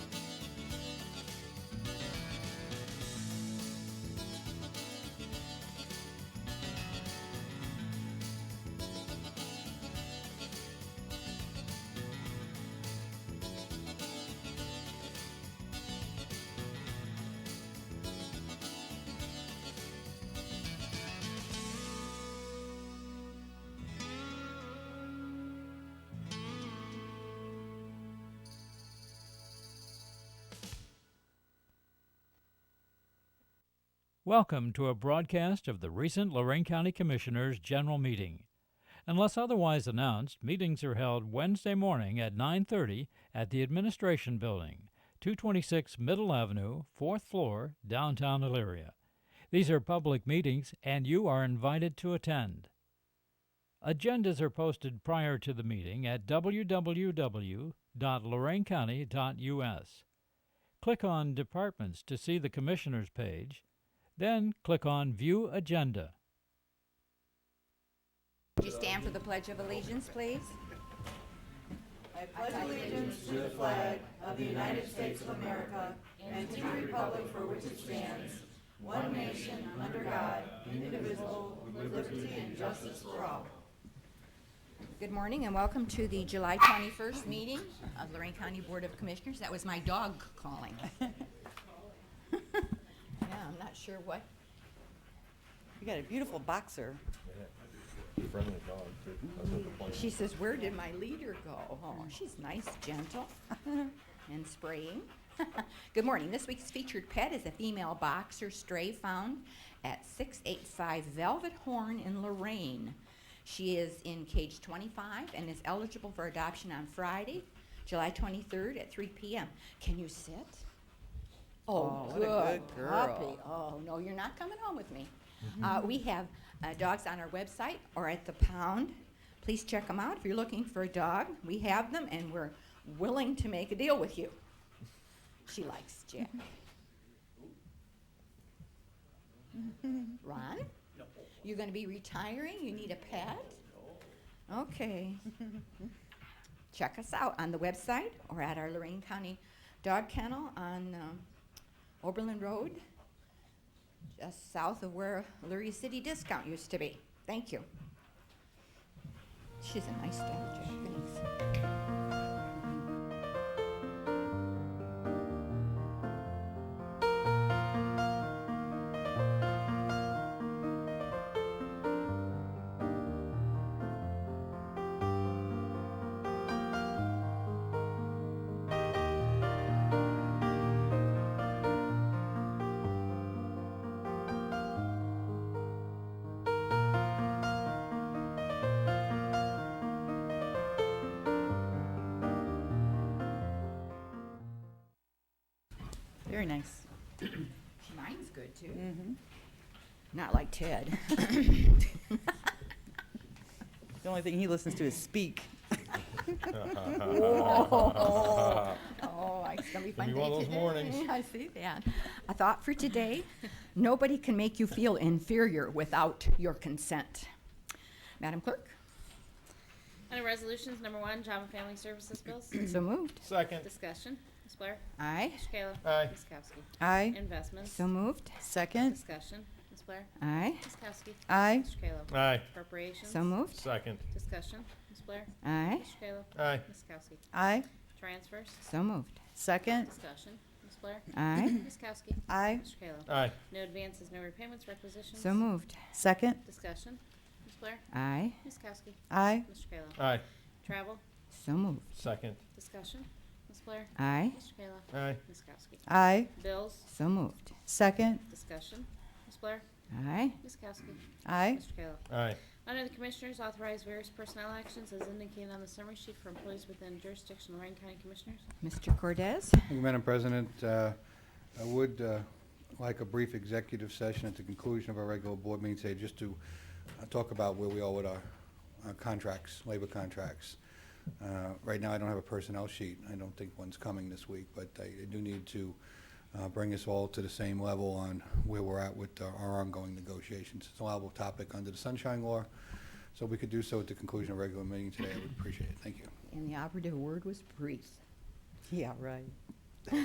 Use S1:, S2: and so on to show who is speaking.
S1: Welcome to a broadcast of the recent Lorraine County Commissioners' General Meeting. Unless otherwise announced, meetings are held Wednesday morning at 9:30 at the Administration Building, 226 Middle Avenue, 4th floor, downtown Elyria. These are public meetings and you are invited to attend. Agendas are posted prior to the meeting at www.loraincounty.us. Click on Departments to see the Commissioners page, then click on View Agenda.
S2: Would you stand for the Pledge of Allegiance, please? Good morning and welcome to the July 21st meeting of Lorraine County Board of Commissioners. That was my dog calling. Yeah, I'm not sure what,
S3: You got a beautiful boxer.
S4: friendly dog, too. That's what the point
S2: she says, where did my leader go? Oh, she's nice, gentle, and spraying. Good morning. This week's featured pet is a female boxer stray found at 685 Velvet Horn in Lorraine. She is in cage 25 and is eligible for adoption on Friday, July 23rd at 3 p.m. Can you sit? Oh,
S3: Oh, what
S2: good,
S3: a good
S2: girl.
S3: girl. Mm-hmm.
S2: Oh, no, you're not coming home with me. Uh, we have uh, dogs on our website or at the pound. Please check them out. If you're looking for a dog, we have them and we're willing to make a deal with you. She likes Jack.
S3: Mm-hmm.
S2: Ron? You're going to be retiring? You need a pet? Okay. Check us out on the website or at our Lorraine County Dog Kennel on um, Oberlin Road, just south of where Lurie City Discount used to be. Thank you. She's a nice dog, Jack. Thanks.
S3: Very nice.
S2: Mine's good too. Not like Ted.
S3: The only thing he listens to is speak.
S2: Oh, it's gonna be a
S4: Gonna
S2: fun
S4: be
S2: day
S4: one of those
S2: today.
S4: mornings.
S2: I see that. A thought for today, nobody can make you feel inferior without your consent. Madam Clerk,
S5: Under Resolutions Number One, Job and Family Services Bills.
S2: so moved.
S4: Second.
S5: Discussion. Ms. Blair.
S2: Aye,
S5: Mr. Kayla.
S4: Aye.
S5: Ms. Kowski.
S3: Aye.
S5: Investments.
S2: so moved.
S3: Second.
S5: Discussion. Ms. Blair.
S2: Aye,
S5: Ms. Kowski.
S3: Aye.
S5: Mr. Kayla.
S4: Aye.
S5: Appropriations.
S2: so moved.
S4: Second.
S5: Discussion. Ms. Blair.
S2: Aye,
S5: Mr. Kayla.
S4: Aye.
S5: Ms. Kowski.
S3: Aye.
S5: Transfers.
S2: so moved.
S3: Second.
S5: Discussion. Ms. Blair.
S2: Aye,
S5: Ms. Kowski.
S3: Aye.
S5: Mr. Kayla.
S4: Aye.
S5: No advances, no repayments, requisitions.
S2: so moved.
S3: Second.
S5: Discussion. Ms. Blair.
S2: Aye,
S5: Ms. Kowski.
S3: Aye.
S5: Mr. Kayla.
S4: Aye.
S5: Travel.
S2: so moved.
S4: Second.
S5: Discussion. Ms. Blair.
S2: Aye,
S5: Mr. Kayla.
S4: Aye.
S5: Ms. Kowski.
S3: Aye.
S5: Bills.
S2: so moved.
S3: Second.
S5: Discussion. Ms. Blair.
S2: Aye,
S5: Ms. Kowski.
S3: Aye.
S5: Mr. Kayla.
S4: Aye.
S5: Under the Commissioners, authorize various personnel actions as indicated on the summary sheet for employees within jurisdiction of Lorraine County Commissioners.
S2: Mr. Cordez,
S6: Thank you, Madam President, Uh, I would uh, like a brief executive session at the conclusion of our regular board meeting today, just to uh, talk about where we are with our our contracts, labor contracts. Uh, Right now, I don't have a personnel sheet. I don't think one's coming this week, but I I do need to uh, bring us all to the same level on where we're at with our- our ongoing negotiations. It's a liable topic under the Sunshine Law, so if we could do so at the conclusion of regular meeting today. I would appreciate it. Thank you.
S2: and the operative word was brief.
S3: Yeah, right.